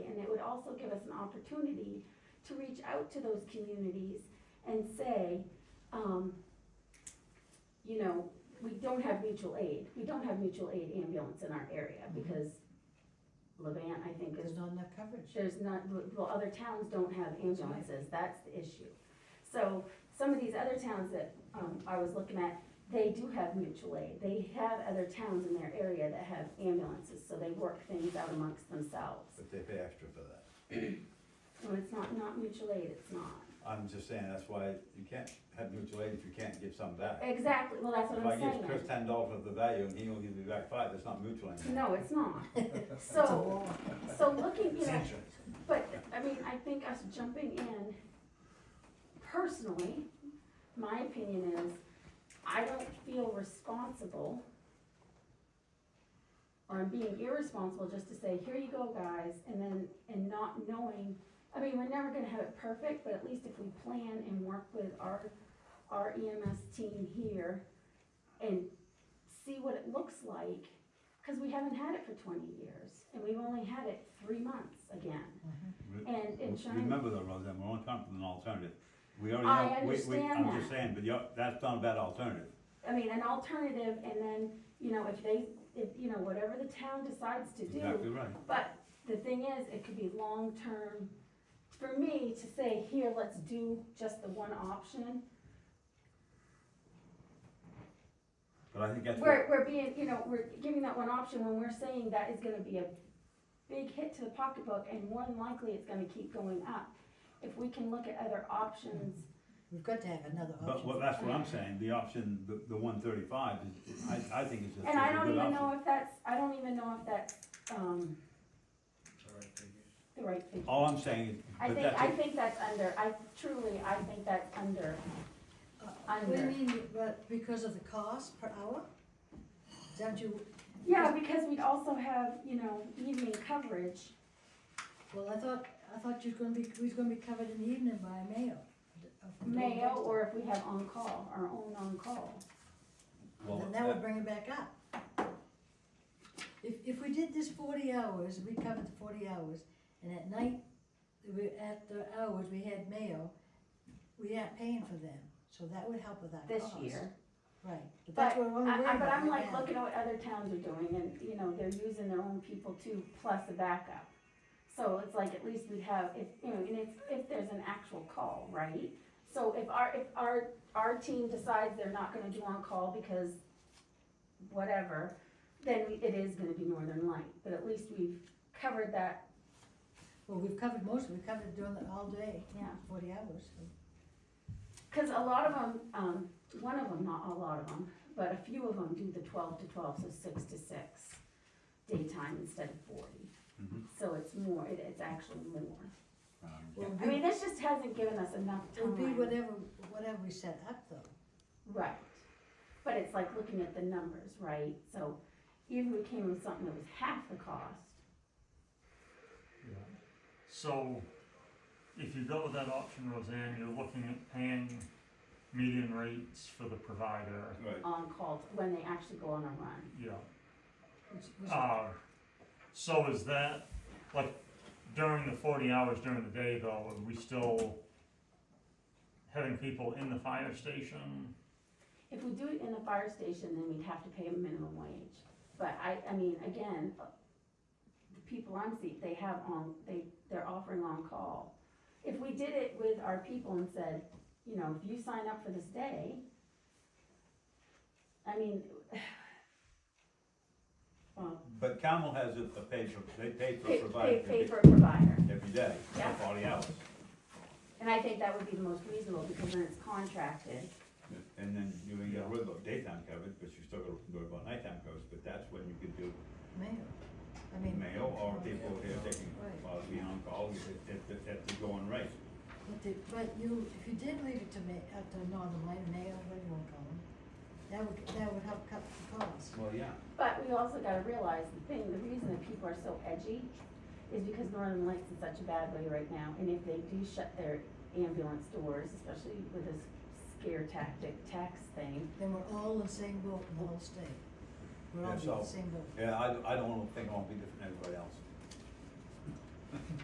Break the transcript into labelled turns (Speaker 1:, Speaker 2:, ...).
Speaker 1: also give us an opportunity to reach out to those communities and say, um, you know, we don't have mutual aid, we don't have mutual aid ambulance in our area,
Speaker 2: Mhm.
Speaker 1: because Levant, I think, is
Speaker 2: There's not enough coverage.
Speaker 1: there's not, well, other towns don't have ambulances, that's the issue. So some of these other towns that, um, I was looking at, they do have mutual aid, they have other towns in their area that have ambulances, so they work things out amongst themselves.
Speaker 3: But they pay extra for that.
Speaker 1: So it's not, not mutual aid, it's not.
Speaker 3: I'm just saying, that's why you can't have mutual aid if you can't give some back.
Speaker 1: Exactly, well, that's what
Speaker 3: If I
Speaker 1: I'm
Speaker 3: give Chris
Speaker 1: saying.
Speaker 3: ten dollars of the value and he only gives me back five, that's not mutual anymore.
Speaker 1: No, it's not.
Speaker 2: It's a
Speaker 1: So,
Speaker 2: law.
Speaker 1: so looking, you
Speaker 3: It's
Speaker 1: know,
Speaker 3: insurance.
Speaker 1: But, I mean, I think us jumping in, personally, my opinion is, I don't feel responsible. Or I'm being irresponsible just to say, here you go, guys, and then, and not knowing, I mean, we're never gonna have it perfect, but at least if we plan and work with our, our EMS team here. And see what it looks like, cause we haven't had it for twenty years, and we've only had it three months again.
Speaker 3: Re-
Speaker 1: And
Speaker 3: re-
Speaker 1: insurance-
Speaker 3: Mm-hmm. Remember though, Roseanne, we're only coming from an alternative. We already
Speaker 1: I
Speaker 3: have, we, we,
Speaker 1: understand
Speaker 3: I'm just
Speaker 1: that.
Speaker 3: saying, but you're, that's not a bad alternative.
Speaker 1: I mean, an alternative, and then, you know, if they, if, you know, whatever the town decides to do.
Speaker 3: Exactly right.
Speaker 1: But the thing is, it could be long-term, for me to say, here, let's do just the one option.
Speaker 3: But I think that's what,
Speaker 1: We're, we're being, you know, we're giving that one option when we're saying that is gonna be a big hit to the pocketbook, and more than likely, it's gonna keep going up. If we can look at other options,
Speaker 2: We've got to have another
Speaker 3: but what,
Speaker 2: option.
Speaker 3: that's what I'm saying, the option, the, the one thirty-five is, I, I think it's just, it's
Speaker 1: and I
Speaker 3: a
Speaker 1: don't
Speaker 3: good
Speaker 1: even
Speaker 3: option.
Speaker 1: know if that's, I don't even know if that's, um, the right figure.
Speaker 3: All I'm saying is,
Speaker 1: I
Speaker 3: but
Speaker 1: think, I
Speaker 3: that's, it.
Speaker 1: think that's under, I truly, I think that's under,
Speaker 2: Uh, What do you
Speaker 1: Under.
Speaker 2: mean, but because of the cost per hour? Don't you?
Speaker 1: yeah, because we'd also have, you know, evening coverage.
Speaker 2: Well, I thought, I thought you was gonna be, we was gonna be covered in the evening by Mayo. of-
Speaker 1: Mayo, or if we have on-call, our own on-call.
Speaker 3: well,
Speaker 2: Then that would
Speaker 3: that,
Speaker 2: bring it back up. If, if we did this forty hours, we covered the forty hours, and at night, we, at the hours, we had Mayo, we aren't paying for them, so that would help with our
Speaker 1: This
Speaker 2: cost.
Speaker 1: year.
Speaker 2: Right, but
Speaker 1: But,
Speaker 2: that's what we're worried
Speaker 1: I- I-
Speaker 2: about
Speaker 1: but I'm
Speaker 2: right
Speaker 1: like
Speaker 2: now.
Speaker 1: looking at what other towns are doing and, you know, they're using their own people too, plus a backup. So it's like, at least we'd have, if, you know, and it's, if there's an actual call, right? So if our, if our, our team decides they're not gonna do on-call because whatever, then it is gonna be Northern Light, but at least we've covered that
Speaker 2: Well, we've covered most, of it. we covered during the, all day,
Speaker 1: Yeah.
Speaker 2: forty hours, so.
Speaker 1: Because a lot of them, um, one of them, not a lot of them, but a few of them do the twelve to twelve, so six to six, daytime instead of forty.
Speaker 3: Mhm.
Speaker 1: So it's more, it, it's actually more.
Speaker 3: um,
Speaker 2: Well,
Speaker 1: I mean, this just hasn't given us enough
Speaker 2: It would be
Speaker 1: time.
Speaker 2: whatever, whatever we set up though.
Speaker 1: Right. But it's like looking at the numbers, right? So even if we came with something that was half the cost,
Speaker 4: So, if you go with that option, Roseanne, you're looking at paying median rates for the provider,
Speaker 3: right.
Speaker 1: on call, when they actually go on a run.
Speaker 4: yeah.
Speaker 2: which- which-
Speaker 4: Uh, so is that, like, during the forty hours during the day though, are we still having people in the fire station?
Speaker 1: If we do it in the fire station, then we'd have to pay a minimum wage. But I, I mean, again, the people I'm seeing, they have on, they, they're offering on-call. If we did it with our people and said, you know, if you sign up for this day, I mean, well,
Speaker 3: But Camel has a, a pay for, they pay for
Speaker 1: pay,
Speaker 3: provider
Speaker 1: pay, pay
Speaker 3: every-
Speaker 1: for a provider.
Speaker 3: every day, for
Speaker 1: Yeah.
Speaker 3: forty hours.
Speaker 1: And I think that would be the most reasonable, because then it's contracted.
Speaker 3: And then you can get rid of daytime coverage, but you still gotta worry about nighttime coverage, but that's when you could do
Speaker 2: Mayo, I mean.
Speaker 3: mail or people here taking,
Speaker 2: Right.
Speaker 3: while we on call, at, at, at the going rate.
Speaker 2: But the, but you, if you did leave it to me, up to Northern Light, Mayo, whatever you wanna call them, that would, that would help cut the cost.
Speaker 3: Well, yeah.
Speaker 1: But we also gotta realize the thing, the reason that people are so edgy is because Northern Lights in such a bad way right now, and if they do shut their ambulance doors, especially with this scare tactic tax thing,
Speaker 2: Then we're all in the same boat in the whole state. We're all
Speaker 3: Yeah,
Speaker 2: in the
Speaker 3: so-
Speaker 2: same boat.
Speaker 3: Yeah, I, I don't wanna think I'll be different than everybody else.